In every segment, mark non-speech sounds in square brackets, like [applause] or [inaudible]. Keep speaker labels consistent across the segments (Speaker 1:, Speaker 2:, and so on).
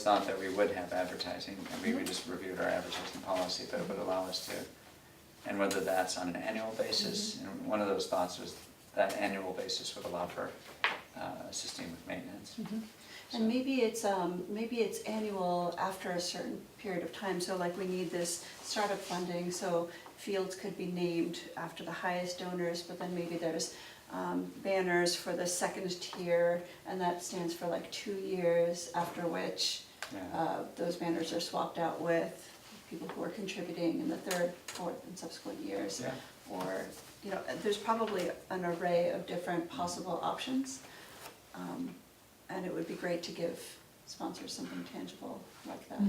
Speaker 1: It's not that we would have advertising, I
Speaker 2: Mm-hmm.
Speaker 1: mean, we just reviewed our advertising policy, but it would allow us to. And whether that's on an annual basis,
Speaker 2: Mm-hmm.
Speaker 1: and one of those thoughts was that annual basis would allow for uh, assisting with maintenance.
Speaker 2: And maybe it's, um, maybe it's annual after a certain period of time, so like we need this startup funding, so fields could be named after the highest donors, but then maybe there's, um, banners for the second tier, and that stands for like two years, after which,
Speaker 1: Yeah,
Speaker 2: uh, those banners are swapped out with people who are contributing in the third, fourth, and subsequent years.
Speaker 1: yeah,
Speaker 2: Or, you know, there's probably an array of different possible options. Um, And it would be great to give sponsors something tangible like that.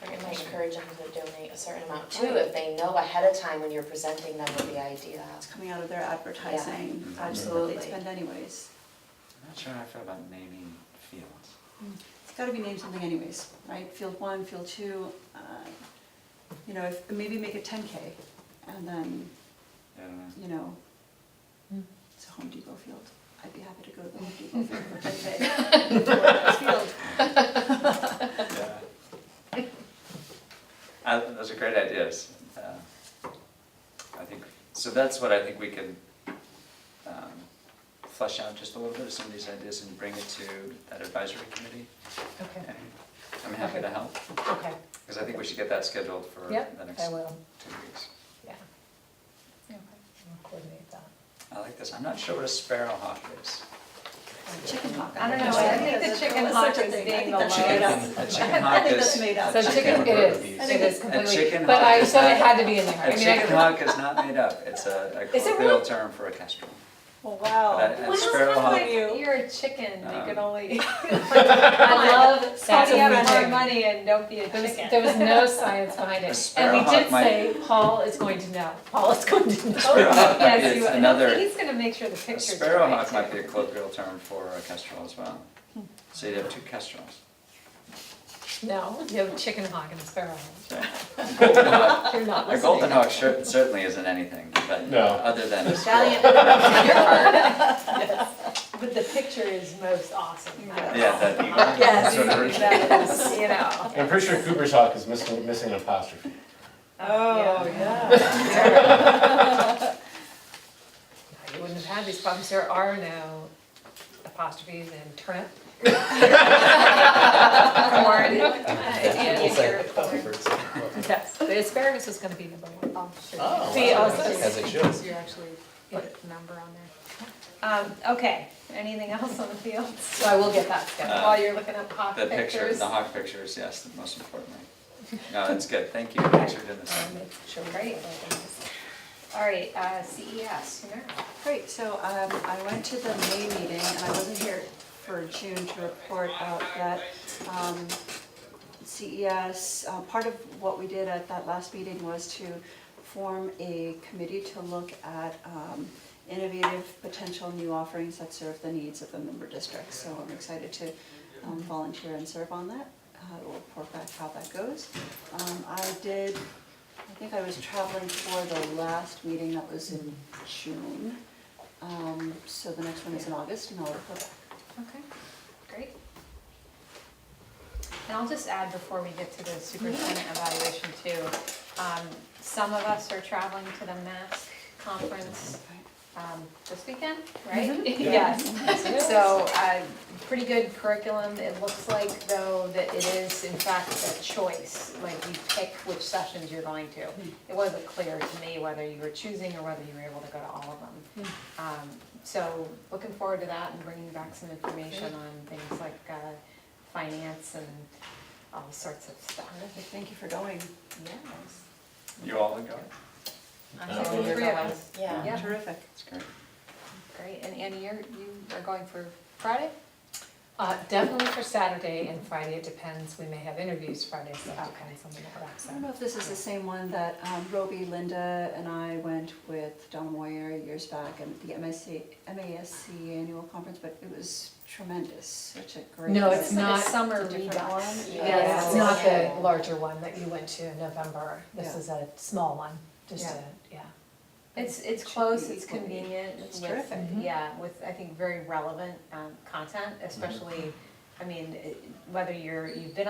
Speaker 3: Or you might encourage them to donate a certain amount too, if they know ahead of time when you're presenting them with the idea.
Speaker 2: It's coming out of their advertising,
Speaker 1: Yeah,
Speaker 2: budget that they
Speaker 3: absolutely.
Speaker 2: spend anyways.
Speaker 1: I'm not sure how I feel about naming fields.
Speaker 2: It's gotta be named something anyways, right? Field one, field two, uh, you know, if, maybe make it ten K and then,
Speaker 1: I don't know.
Speaker 2: you know, it's a Home Depot field. I'd be happy to go to the Home Depot field for ten K. Field.
Speaker 1: Yeah. Uh, those are great ideas. Uh, I think, so that's what I think we can um, flesh out just a little bit of some of these ideas and bring it to that advisory committee.
Speaker 4: Okay,
Speaker 1: And I'm happy to help,
Speaker 4: okay,
Speaker 1: because I think we should get that scheduled for the
Speaker 4: yep,
Speaker 1: next
Speaker 4: I
Speaker 1: two
Speaker 4: will,
Speaker 1: weeks.
Speaker 4: yeah. Okay, I'll coordinate that.
Speaker 1: I like this, I'm not sure what a sparrowhawk is.
Speaker 2: Chicken hawk.
Speaker 4: I don't know,
Speaker 2: think so.
Speaker 4: I think the
Speaker 2: That's
Speaker 4: chicken
Speaker 2: such a
Speaker 4: hawk
Speaker 2: thing.
Speaker 4: is
Speaker 2: I think
Speaker 4: being
Speaker 2: that's
Speaker 4: the
Speaker 2: made
Speaker 4: lion.
Speaker 2: up.
Speaker 1: A chicken
Speaker 2: I
Speaker 1: hawk
Speaker 2: think that's
Speaker 1: is,
Speaker 2: made up.
Speaker 1: a
Speaker 4: So chicken,
Speaker 1: Uh, chicken
Speaker 4: it
Speaker 1: would be- I
Speaker 4: is, it
Speaker 2: think
Speaker 4: is
Speaker 2: a
Speaker 4: completely,
Speaker 1: chicken
Speaker 4: but
Speaker 1: hawk
Speaker 4: I,
Speaker 1: is
Speaker 4: so it
Speaker 1: not-
Speaker 4: had to be in there,
Speaker 1: a
Speaker 4: I mean, I.
Speaker 1: chicken hawk is not made up, it's a a
Speaker 4: Is it
Speaker 1: colloquial
Speaker 4: really?
Speaker 1: term for a kestrel.
Speaker 2: Oh,
Speaker 1: But
Speaker 2: wow.
Speaker 1: a- a sparrowhawk
Speaker 5: You're a chicken, you
Speaker 1: Um,
Speaker 5: can only. I love savvy up
Speaker 4: amazing.
Speaker 5: more money [laughs] and don't be a
Speaker 4: There was,
Speaker 5: chicken.
Speaker 4: there was no science behind
Speaker 1: A
Speaker 4: it, and
Speaker 1: sparrowhawk
Speaker 4: we did
Speaker 1: might-
Speaker 4: say, Paul is going to know, Paul is going to know.
Speaker 1: Sparrowhawk might be
Speaker 5: Yes, you,
Speaker 1: a- another.
Speaker 5: he's gonna make sure the
Speaker 1: A
Speaker 5: picture's right.
Speaker 1: sparrowhawk might
Speaker 5: too.
Speaker 1: be a colloquial term for a kestrel as well. So you'd have two kestrels.
Speaker 4: No, you have a chicken hawk and a sparrowhawk, you're not
Speaker 1: A
Speaker 4: listening.
Speaker 1: golden hawk cer- certainly isn't anything, but
Speaker 6: No.
Speaker 1: other than a sparrow.
Speaker 2: Valiant.
Speaker 5: But the picture is most awesome.
Speaker 1: Yeah, that eagle.
Speaker 4: Yes.
Speaker 1: Sort of original.
Speaker 5: You know.
Speaker 6: I'm pretty sure Cooper's Hawk is missing, missing an apostrophe.
Speaker 5: Oh,
Speaker 4: yeah. You wouldn't have had these problems, there are no apostrophes in turnip.
Speaker 1: [laughs]
Speaker 4: Corn.
Speaker 5: And you're corn.
Speaker 4: Yes, the asparagus is gonna be number one.
Speaker 6: Oh,
Speaker 4: See,
Speaker 6: wow.
Speaker 4: also-
Speaker 6: As it should.
Speaker 4: You actually put a number on there.
Speaker 5: Um, okay, anything else on the fields?
Speaker 4: So I will get that scheduled.
Speaker 5: While you're looking up hawk
Speaker 1: Uh, The picture,
Speaker 5: pictures.
Speaker 1: the hawk picture is, yes, the most important thing. No, that's good, thank you, thanks for doing this.
Speaker 4: I'll
Speaker 5: um,
Speaker 4: make sure we
Speaker 5: Great.
Speaker 4: get that in this.
Speaker 5: All right, uh, CES, you know.
Speaker 2: Great, so um, I went to the May meeting, and I wasn't here for June to report out that um, CES, uh, part of what we did at that last meeting was to form a committee to look at um, innovative potential new offerings that serve the needs of the member districts. So I'm excited to um, volunteer and serve on that. Uh, We'll report back how that goes. Um, I did, I think I was traveling for the last meeting that was in June. Um, So the next one is in August, and I'll report back.
Speaker 5: Okay, great. And I'll just add before we get to the superintendent evaluation too, um, some of us are traveling to the MASC conference, um, this weekend, [laughs] right? Yes. So, uh, pretty good curriculum, it looks like though that it is in fact a choice, like you pick which sessions you're going to. It wasn't clear to me whether you were choosing or whether you were able to go to all of them. Um, so, looking forward to that and bringing back some information on things like, uh, finance and all sorts of stuff.
Speaker 2: Okay, Thank you for going.
Speaker 5: Yes.
Speaker 1: You all go?
Speaker 5: I
Speaker 6: Oh,
Speaker 5: think the
Speaker 6: you're
Speaker 5: three of us,
Speaker 3: Yeah.
Speaker 5: Yeah.
Speaker 2: Terrific.
Speaker 1: That's great.
Speaker 5: great, and Annie, you're, you are going for Friday?
Speaker 4: Uh, definitely for Saturday and Friday, it depends, we may have interviews Friday, so it depends on the crowd,
Speaker 2: I
Speaker 4: so.
Speaker 2: don't know if this is the same one that um, Roby, Linda, and I went with Donna Moyer years back and the MSC, MASC annual conference, but it was tremendous, such a great.
Speaker 4: No, it's
Speaker 5: It's like a
Speaker 4: not-
Speaker 5: summer
Speaker 2: It's a different
Speaker 5: redux.
Speaker 2: one.
Speaker 3: Yeah.
Speaker 4: Yeah, it's
Speaker 3: Yeah.
Speaker 4: not the larger one that you went to in November, this
Speaker 2: Yeah.
Speaker 4: is a small one, just
Speaker 2: Yeah.
Speaker 4: a, yeah.
Speaker 5: It's, it's
Speaker 2: Should
Speaker 5: close,
Speaker 2: be
Speaker 5: it's Mm-hmm.
Speaker 2: equally-
Speaker 5: convenient,
Speaker 2: it's
Speaker 5: with,
Speaker 2: terrific.
Speaker 5: yeah, with, I think, very relevant, um, content, especially I mean, it- whether you're, you've been